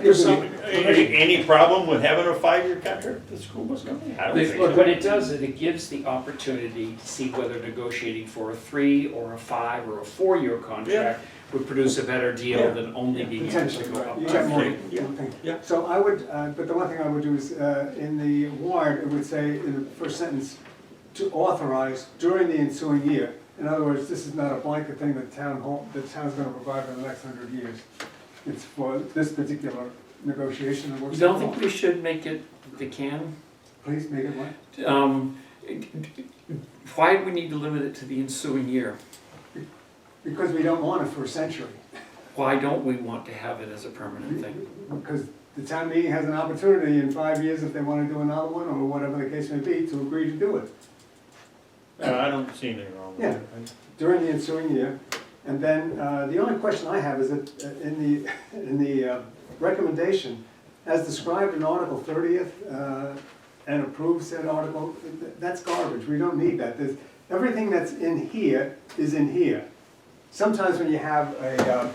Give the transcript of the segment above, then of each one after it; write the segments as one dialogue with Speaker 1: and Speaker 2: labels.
Speaker 1: There's some,
Speaker 2: Any, any problem with having a five-year contract with the school bus company? I don't think
Speaker 3: Look, what
Speaker 2: so.
Speaker 3: it does is it gives the opportunity to see whether negotiating for a three or a five or a four-year contract would produce a better
Speaker 2: Yeah.
Speaker 3: deal than only being able to
Speaker 1: Potentially,
Speaker 3: go
Speaker 1: right,
Speaker 3: up.
Speaker 1: you
Speaker 3: by
Speaker 1: got more,
Speaker 3: three.
Speaker 2: Yeah,
Speaker 1: okay.
Speaker 2: yeah.
Speaker 1: So I would, uh, but the one thing I would do is, uh, in the warrant, it would say in the first sentence, to authorize during the ensuing year. In other words, this is not a blanket thing that town hall, the town's gonna provide for the next hundred years. It's for this particular negotiation and work.
Speaker 3: You don't think we should make it the can?
Speaker 1: Please make it one,
Speaker 3: Um, Why do we need to limit it to the ensuing year?
Speaker 1: because we don't want it for a century.
Speaker 3: Why don't we want to have it as a permanent thing?
Speaker 1: Because the town meeting has an opportunity in five years, if they wanna do another one, or whatever the case may be, to agree to do it.
Speaker 2: No, Uh, I don't see anything wrong with it.
Speaker 1: during the ensuing year. And then, uh, the only question I have is that uh, in the, in the uh, recommendation, as described in Article thirtieth, uh, and approved said article, th- that's garbage, we don't need that. There's- Everything that's in here is in here. Sometimes when you have a uh,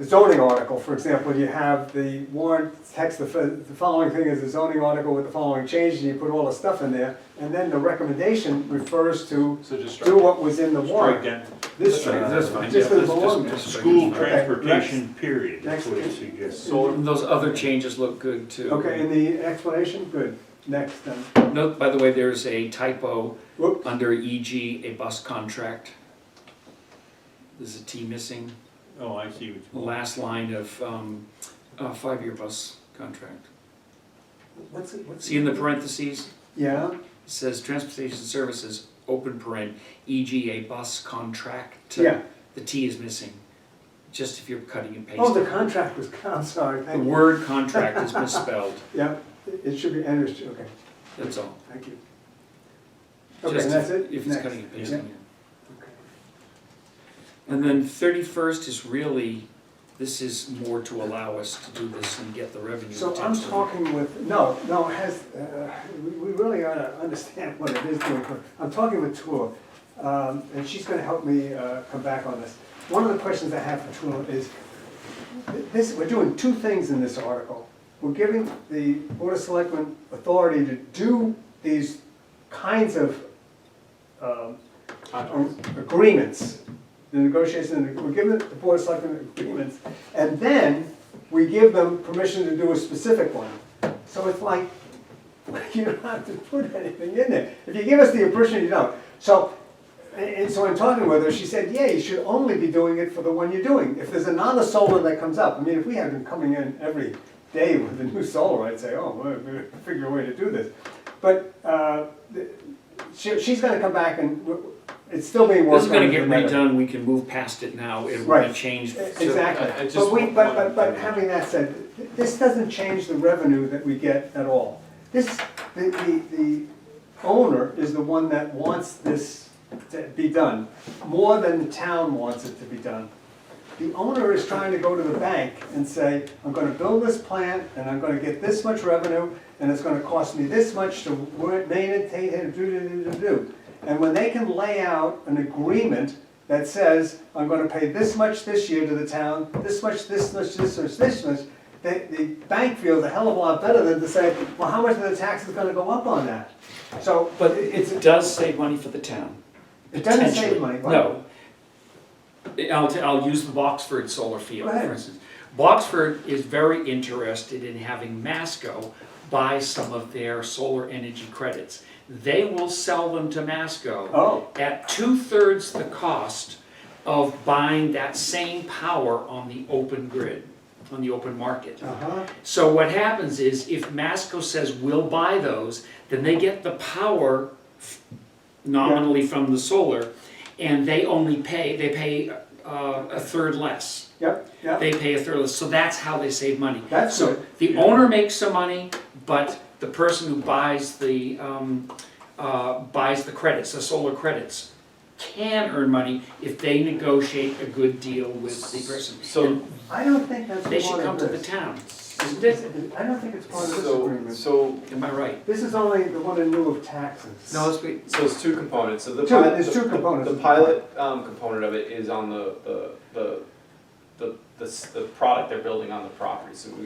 Speaker 1: a zoning article, for example, you have the warrant text, the fo- the following thing is a zoning article with the following changes, and you put all the stuff in there, and then the recommendation refers to
Speaker 4: So just
Speaker 1: do what was in the
Speaker 2: Strike
Speaker 1: warrant.
Speaker 2: that,
Speaker 1: This
Speaker 4: Strike, that's fine,
Speaker 1: Just
Speaker 4: yeah,
Speaker 1: the
Speaker 4: let's just-
Speaker 1: belong.
Speaker 4: just-
Speaker 2: school
Speaker 1: Okay,
Speaker 2: transportation period,
Speaker 1: Next.
Speaker 2: that's what it suggests.
Speaker 4: solar,
Speaker 3: Those other changes look good too.
Speaker 1: Okay, and the explanation, good, next then.
Speaker 3: Note, by the way, there's a typo
Speaker 1: Whoop,
Speaker 3: under EG, a bus contract. There's a T missing.
Speaker 2: Oh, I see what
Speaker 3: the
Speaker 2: you mean.
Speaker 3: last line of um, a five-year bus contract.
Speaker 1: what's it, what's?
Speaker 3: See in the parentheses,
Speaker 1: Yeah,
Speaker 3: it says transportation services, open paren, e.g. a bus contract.
Speaker 1: yeah.
Speaker 3: The T is missing, just if you're cutting and
Speaker 1: Oh, the
Speaker 3: pasting.
Speaker 1: contract was, I'm sorry,
Speaker 3: The
Speaker 1: thank you.
Speaker 3: word contract is misspelled,
Speaker 1: Yeah, it should be, and it's, okay,
Speaker 3: that's all.
Speaker 1: thank you. Okay,
Speaker 3: Just
Speaker 1: and that's it?
Speaker 3: If it's
Speaker 1: Next.
Speaker 3: cutting and
Speaker 1: Yeah,
Speaker 3: pasting.
Speaker 1: okay.
Speaker 3: And then thirty-first is really, this is more to allow us to do this and get the revenue.
Speaker 1: So I'm
Speaker 3: potentially.
Speaker 1: talking with, no, no, it has, uh, we we really ought to understand what it is doing. I'm talking with Tua, um, and she's gonna help me uh, come back on this. One of the questions I have for Tua is, this, we're doing two things in this article. We're giving the Board of Selectmen authority to do these kinds of um, agreements, the negotiations, we're giving the Board of Selectmen agreements, and then we give them permission to do a specific one. So it's like, you don't have to put anything in there. If you give us the impression you don't. So, and- and so in talking with her, she said, yeah, you should only be doing it for the one you're doing. If there's another solar that comes up, I mean, if we had them coming in every day with a new solar, I'd say, oh, we're gonna figure a way to do this. But, uh, the- she, she's gonna come back and, w- w- it's still being worked on.
Speaker 3: This is gonna get
Speaker 1: in the minute.
Speaker 3: redone, we can move past it now, it will be
Speaker 1: Right.
Speaker 3: changed.
Speaker 4: I- I
Speaker 1: Exactly,
Speaker 4: just
Speaker 1: but we,
Speaker 4: want
Speaker 1: but,
Speaker 4: one
Speaker 1: but, but
Speaker 4: thing.
Speaker 1: having that said, th- this doesn't change the revenue that we get at all. This, the, the, the owner is the one that wants this to be done, more than the town wants it to be done. The owner is trying to go to the bank and say, I'm gonna build this plant, and I'm gonna get this much revenue, and it's gonna cost me this much to work, maintain, and do, do, do, do, do. And when they can lay out an agreement that says, I'm gonna pay this much this year to the town, this much, this much, this much, this much, the, the bank feels a hell of a lot better than to say, well, how much of the tax is gonna go up on that? So,
Speaker 3: But
Speaker 1: it- it's,
Speaker 3: it does save money for the town.
Speaker 1: it doesn't
Speaker 3: potentially.
Speaker 1: save money, but.
Speaker 3: No. I'll, t- I'll use the Boxford solar field,
Speaker 1: Go ahead.
Speaker 3: for instance. Boxford is very interested in having Masco buy some of their solar energy credits. They will sell them to Masco
Speaker 1: Oh.
Speaker 3: at two-thirds the cost of buying that same power on the open grid, on the open market.
Speaker 1: Uh-huh,
Speaker 3: So what happens is if Masco says we'll buy those, then they get the power f- nominally from the solar and they only pay, they pay uh, a third less.
Speaker 1: yep, yep.
Speaker 3: They pay a third less, so that's how they save money.
Speaker 1: That's
Speaker 3: So
Speaker 1: good.
Speaker 3: the owner makes some money, but the person who buys the, um, uh, buys the credits, the solar credits, can earn money if they negotiate a good deal with the person.
Speaker 4: so,
Speaker 1: I don't think that's
Speaker 3: They should
Speaker 1: part
Speaker 3: come
Speaker 1: of
Speaker 3: to the
Speaker 1: this.
Speaker 3: town, isn't it?
Speaker 1: I don't think it's part of this
Speaker 4: so,
Speaker 1: agreement.
Speaker 4: so,
Speaker 3: Am I right?
Speaker 1: This is only the one in lieu of taxes.
Speaker 3: No, let's wait.
Speaker 4: so it's two components, so the
Speaker 1: Two,
Speaker 4: pilot.
Speaker 1: there's two
Speaker 4: the-
Speaker 1: components.
Speaker 4: The pilot, um, component of it is on the, the, the, the, the, s- the product they're building on the property, so we